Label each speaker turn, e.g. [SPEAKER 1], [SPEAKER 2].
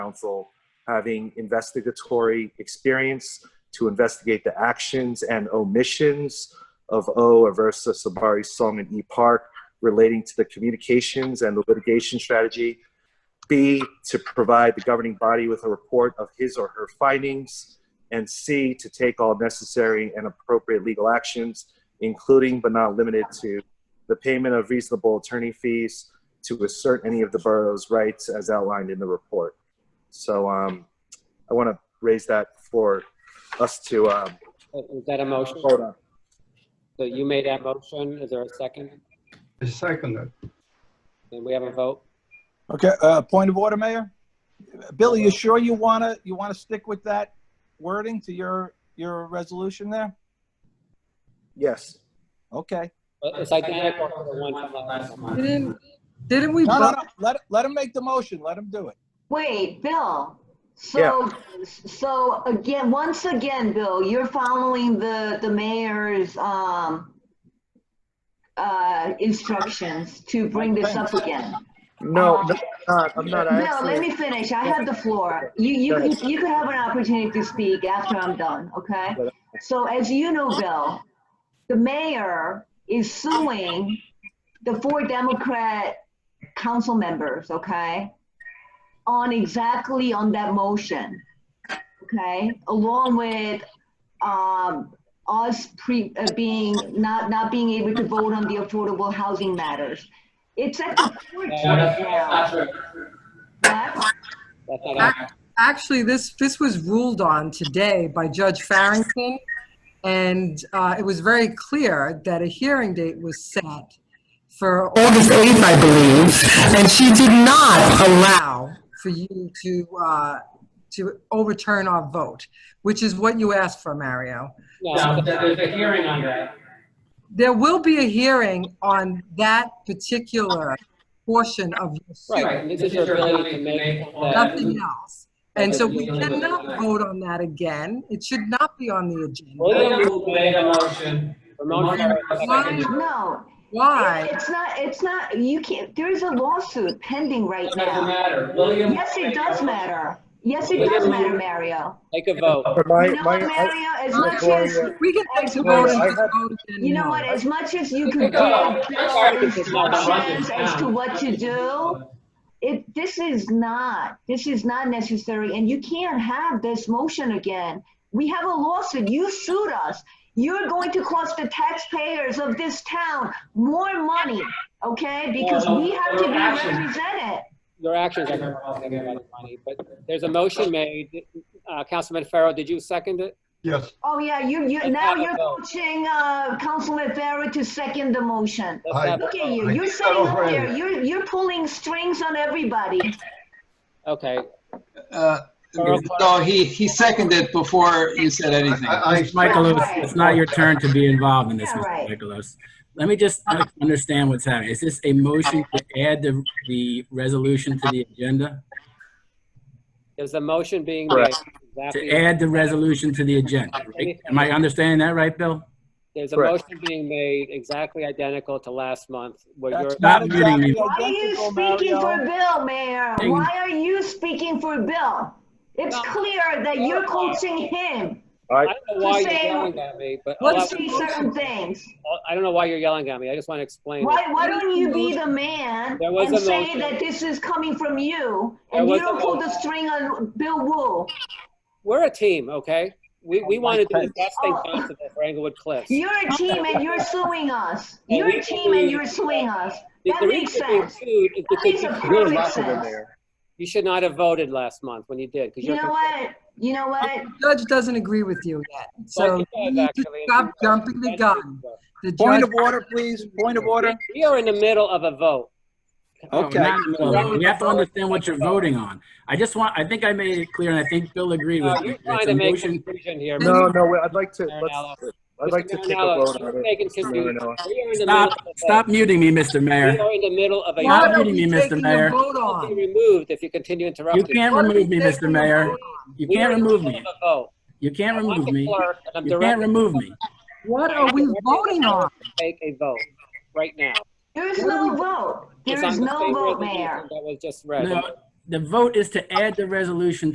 [SPEAKER 1] counsel having investigatory experience to investigate the actions and omissions of O. Aversa Sabari Song and E. Park relating to the communications and the litigation strategy. B, to provide the governing body with a report of his or her findings. And C, to take all necessary and appropriate legal actions, including but not limited to the payment of reasonable attorney fees to assert any of the borough's rights as outlined in the report. So um, I want to raise that for us to um,
[SPEAKER 2] Is that a motion?
[SPEAKER 1] vote on.
[SPEAKER 2] So you made that motion. Is there a second?
[SPEAKER 3] I second it.
[SPEAKER 2] And we have a vote?
[SPEAKER 4] Okay, uh, point of order, Mayor? Billy, you sure you wanna, you wanna stick with that wording to your, your resolution there?
[SPEAKER 1] Yes.
[SPEAKER 4] Okay.
[SPEAKER 2] But Uh, It's identical to the one from last month.
[SPEAKER 5] Didn't, didn't we,
[SPEAKER 4] No, no,
[SPEAKER 5] vote?
[SPEAKER 4] no, let, let him make the motion, let him do it.
[SPEAKER 6] Wait, Bill, so, so again, once again, Bill, you're following the, the mayor's, um, uh, instructions to bring this up again.
[SPEAKER 1] No,
[SPEAKER 6] Um,
[SPEAKER 1] no, I'm not. I'm not. I
[SPEAKER 6] No, let
[SPEAKER 1] actually,
[SPEAKER 6] me finish. I have the floor. You, you,
[SPEAKER 1] Go
[SPEAKER 6] could- you could have an opportunity to speak after I'm done, okay? So as you know, Bill, the mayor is suing the four Democrat council members, okay? On exactly on that motion, okay? Along with, um, us pre, uh, being, not, not being able to vote on the affordable housing matters. It's at the court right now. What?
[SPEAKER 2] That's not happening.
[SPEAKER 5] actually, this, this was ruled on today by Judge Farrington, and uh, it was very clear that a hearing date was set for August 8th, I believe, and she did not allow for you to, uh, to overturn our vote, which is what you asked for, Mario.
[SPEAKER 2] No, there's a hearing on that.
[SPEAKER 5] There will be a hearing on that particular portion of your suit.
[SPEAKER 2] Right, this is your ability to make that.
[SPEAKER 5] nothing else. And so we cannot vote on that again. It should not be on the agenda.
[SPEAKER 2] William made a motion. Ramon seconded.
[SPEAKER 6] No,
[SPEAKER 5] Why?
[SPEAKER 6] it's not, it's not, you can't, there is a lawsuit pending right now.
[SPEAKER 2] matter. William.
[SPEAKER 6] Yes, it does matter. Yes, it does matter, Mario.
[SPEAKER 2] Take a vote.
[SPEAKER 1] my,
[SPEAKER 6] You know
[SPEAKER 1] my,
[SPEAKER 6] what,
[SPEAKER 1] I,
[SPEAKER 6] Mario, as
[SPEAKER 5] I-
[SPEAKER 6] much as,
[SPEAKER 5] We can take the vote and just vote again.
[SPEAKER 6] you know what,
[SPEAKER 5] now.
[SPEAKER 6] as much as you could
[SPEAKER 2] Because-
[SPEAKER 6] give
[SPEAKER 2] because
[SPEAKER 6] Bill
[SPEAKER 2] it's not a budget
[SPEAKER 6] instructions as to
[SPEAKER 2] now.
[SPEAKER 6] what to do, it, this is not, this is not necessary, and you can't have this motion again. We have a lawsuit, you sued us. You're going to cost the taxpayers of this town more money, okay? Because we have to be represented.
[SPEAKER 2] Your actions are costing everybody money, but there's a motion made. Uh, Councilman Farrow, did you second it?
[SPEAKER 3] Yes,
[SPEAKER 6] Oh, yeah, you, you,
[SPEAKER 2] Let's
[SPEAKER 6] now
[SPEAKER 2] have a
[SPEAKER 6] you're
[SPEAKER 2] vote.
[SPEAKER 6] coaching, uh, Councilman Farah to second the motion.
[SPEAKER 2] Let's
[SPEAKER 3] Aye.
[SPEAKER 2] have a
[SPEAKER 6] Look at
[SPEAKER 2] vote.
[SPEAKER 6] you,
[SPEAKER 3] I
[SPEAKER 6] you're
[SPEAKER 3] think
[SPEAKER 6] sitting
[SPEAKER 3] that
[SPEAKER 6] up
[SPEAKER 3] was
[SPEAKER 6] there,
[SPEAKER 3] right.
[SPEAKER 6] you're, you're pulling strings on everybody.
[SPEAKER 2] Okay,
[SPEAKER 7] Uh,
[SPEAKER 2] Carl.
[SPEAKER 7] No, he, he seconded before you said anything.
[SPEAKER 3] I, I,
[SPEAKER 8] Michaelos, it's not your turn to be involved in this,
[SPEAKER 6] Yeah,
[SPEAKER 8] Mr.
[SPEAKER 6] right.
[SPEAKER 8] Michaelos. Let me just understand what's happening. Is this a motion to add the, the resolution to the agenda?
[SPEAKER 2] there's a motion being made.
[SPEAKER 1] Correct.
[SPEAKER 2] Exactly.
[SPEAKER 8] To add the resolution to the agenda, right? Am I understanding that right, Bill?
[SPEAKER 2] There's a
[SPEAKER 1] Correct.
[SPEAKER 2] motion being made exactly identical to last month where you're,
[SPEAKER 4] That's not
[SPEAKER 8] Stop muting me.
[SPEAKER 4] exactly
[SPEAKER 6] Why are you
[SPEAKER 4] identical,
[SPEAKER 6] speaking for
[SPEAKER 4] Mario.
[SPEAKER 6] Bill, Mayor?
[SPEAKER 8] Ding.
[SPEAKER 6] Why are you speaking for Bill? It's
[SPEAKER 2] No.
[SPEAKER 6] clear that you're coaching him
[SPEAKER 2] I don't know why you're
[SPEAKER 6] Just saying-
[SPEAKER 2] yelling at me, but all
[SPEAKER 5] What's
[SPEAKER 6] to
[SPEAKER 2] I,
[SPEAKER 5] the
[SPEAKER 6] say certain things.
[SPEAKER 2] I don't know why you're yelling at me. I just want to explain. it.
[SPEAKER 6] Why, why don't you be the man
[SPEAKER 2] There was
[SPEAKER 6] and
[SPEAKER 2] a
[SPEAKER 6] say
[SPEAKER 2] motion.
[SPEAKER 6] that this is coming from you
[SPEAKER 2] There
[SPEAKER 6] and
[SPEAKER 2] was
[SPEAKER 6] you
[SPEAKER 2] a
[SPEAKER 6] don't pull the
[SPEAKER 2] motion.
[SPEAKER 6] string on Bill Wu?
[SPEAKER 2] We're a team, okay? We, we want to do the best thing
[SPEAKER 6] Oh.
[SPEAKER 2] possible for Englewood Cliffs.
[SPEAKER 6] You're a team and you're suing us.
[SPEAKER 2] And
[SPEAKER 6] You're
[SPEAKER 2] we
[SPEAKER 6] a team and
[SPEAKER 2] believe-
[SPEAKER 6] you're suing us.
[SPEAKER 2] The-
[SPEAKER 6] That
[SPEAKER 2] the
[SPEAKER 6] makes
[SPEAKER 2] reason being
[SPEAKER 6] sense.
[SPEAKER 2] sued is
[SPEAKER 6] That makes a
[SPEAKER 2] because you-
[SPEAKER 1] you're
[SPEAKER 6] perfect
[SPEAKER 1] laughing in
[SPEAKER 6] sense.
[SPEAKER 1] there.
[SPEAKER 2] You should not have voted last month when you did. 'cause
[SPEAKER 6] You
[SPEAKER 2] you're
[SPEAKER 6] know what? You know what?
[SPEAKER 5] The Judge doesn't agree with you yet.
[SPEAKER 2] Well,
[SPEAKER 5] So
[SPEAKER 2] he
[SPEAKER 5] you
[SPEAKER 2] does,
[SPEAKER 5] need to
[SPEAKER 2] actually, and
[SPEAKER 5] stop
[SPEAKER 2] he does.
[SPEAKER 5] jumping the gun. The
[SPEAKER 4] Point
[SPEAKER 5] judge,
[SPEAKER 4] of order, please, point of order.
[SPEAKER 2] We are in the middle of a vote.
[SPEAKER 4] Okay.
[SPEAKER 8] Not in the middle of it. You have to understand what you're voting on. I just want, I think I made it clear, and I think Bill agreed
[SPEAKER 2] Uh,
[SPEAKER 8] with me.
[SPEAKER 2] You're trying
[SPEAKER 8] It's
[SPEAKER 2] to
[SPEAKER 8] a
[SPEAKER 2] make
[SPEAKER 8] motion,
[SPEAKER 2] confusion here.
[SPEAKER 1] No, no, wait, I'd like to,
[SPEAKER 2] Marinello.
[SPEAKER 1] let's, I'd like to
[SPEAKER 2] Mr.
[SPEAKER 1] take a
[SPEAKER 2] Marinello,
[SPEAKER 1] vote on
[SPEAKER 2] you're
[SPEAKER 1] it.
[SPEAKER 2] making confusion.
[SPEAKER 1] Marinello.
[SPEAKER 2] We are in the middle
[SPEAKER 8] stop,
[SPEAKER 2] of a
[SPEAKER 8] stop muting me,
[SPEAKER 2] vote.
[SPEAKER 8] Mr.
[SPEAKER 2] We
[SPEAKER 8] Mayor.
[SPEAKER 2] are in the middle of a.
[SPEAKER 8] Stop
[SPEAKER 5] what are
[SPEAKER 8] muting me,
[SPEAKER 5] we
[SPEAKER 8] Mr.
[SPEAKER 5] taking
[SPEAKER 8] Mayor.
[SPEAKER 5] a vote
[SPEAKER 2] You'll be
[SPEAKER 5] on?
[SPEAKER 2] removed if you continue
[SPEAKER 8] You
[SPEAKER 2] interrupting.
[SPEAKER 8] can't
[SPEAKER 5] What are we
[SPEAKER 8] remove me,
[SPEAKER 5] taking
[SPEAKER 8] Mr.
[SPEAKER 5] a
[SPEAKER 8] Mayor.
[SPEAKER 5] vote on?
[SPEAKER 8] You
[SPEAKER 2] We are
[SPEAKER 8] can't
[SPEAKER 2] in the
[SPEAKER 8] remove
[SPEAKER 2] middle
[SPEAKER 8] me.
[SPEAKER 2] of a vote.
[SPEAKER 8] You can't
[SPEAKER 2] I'm
[SPEAKER 8] remove
[SPEAKER 2] the
[SPEAKER 8] me.
[SPEAKER 2] clerk, and I'm
[SPEAKER 8] You can't
[SPEAKER 2] directing
[SPEAKER 8] remove me.
[SPEAKER 5] What are we voting on?
[SPEAKER 2] to Take a vote right now.
[SPEAKER 6] There is no vote.
[SPEAKER 2] It's
[SPEAKER 6] There
[SPEAKER 2] on
[SPEAKER 6] is
[SPEAKER 2] the
[SPEAKER 6] no
[SPEAKER 2] same
[SPEAKER 6] vote,
[SPEAKER 2] resolution
[SPEAKER 6] Mayor.
[SPEAKER 2] That was just read.
[SPEAKER 8] No, the vote is to add the resolution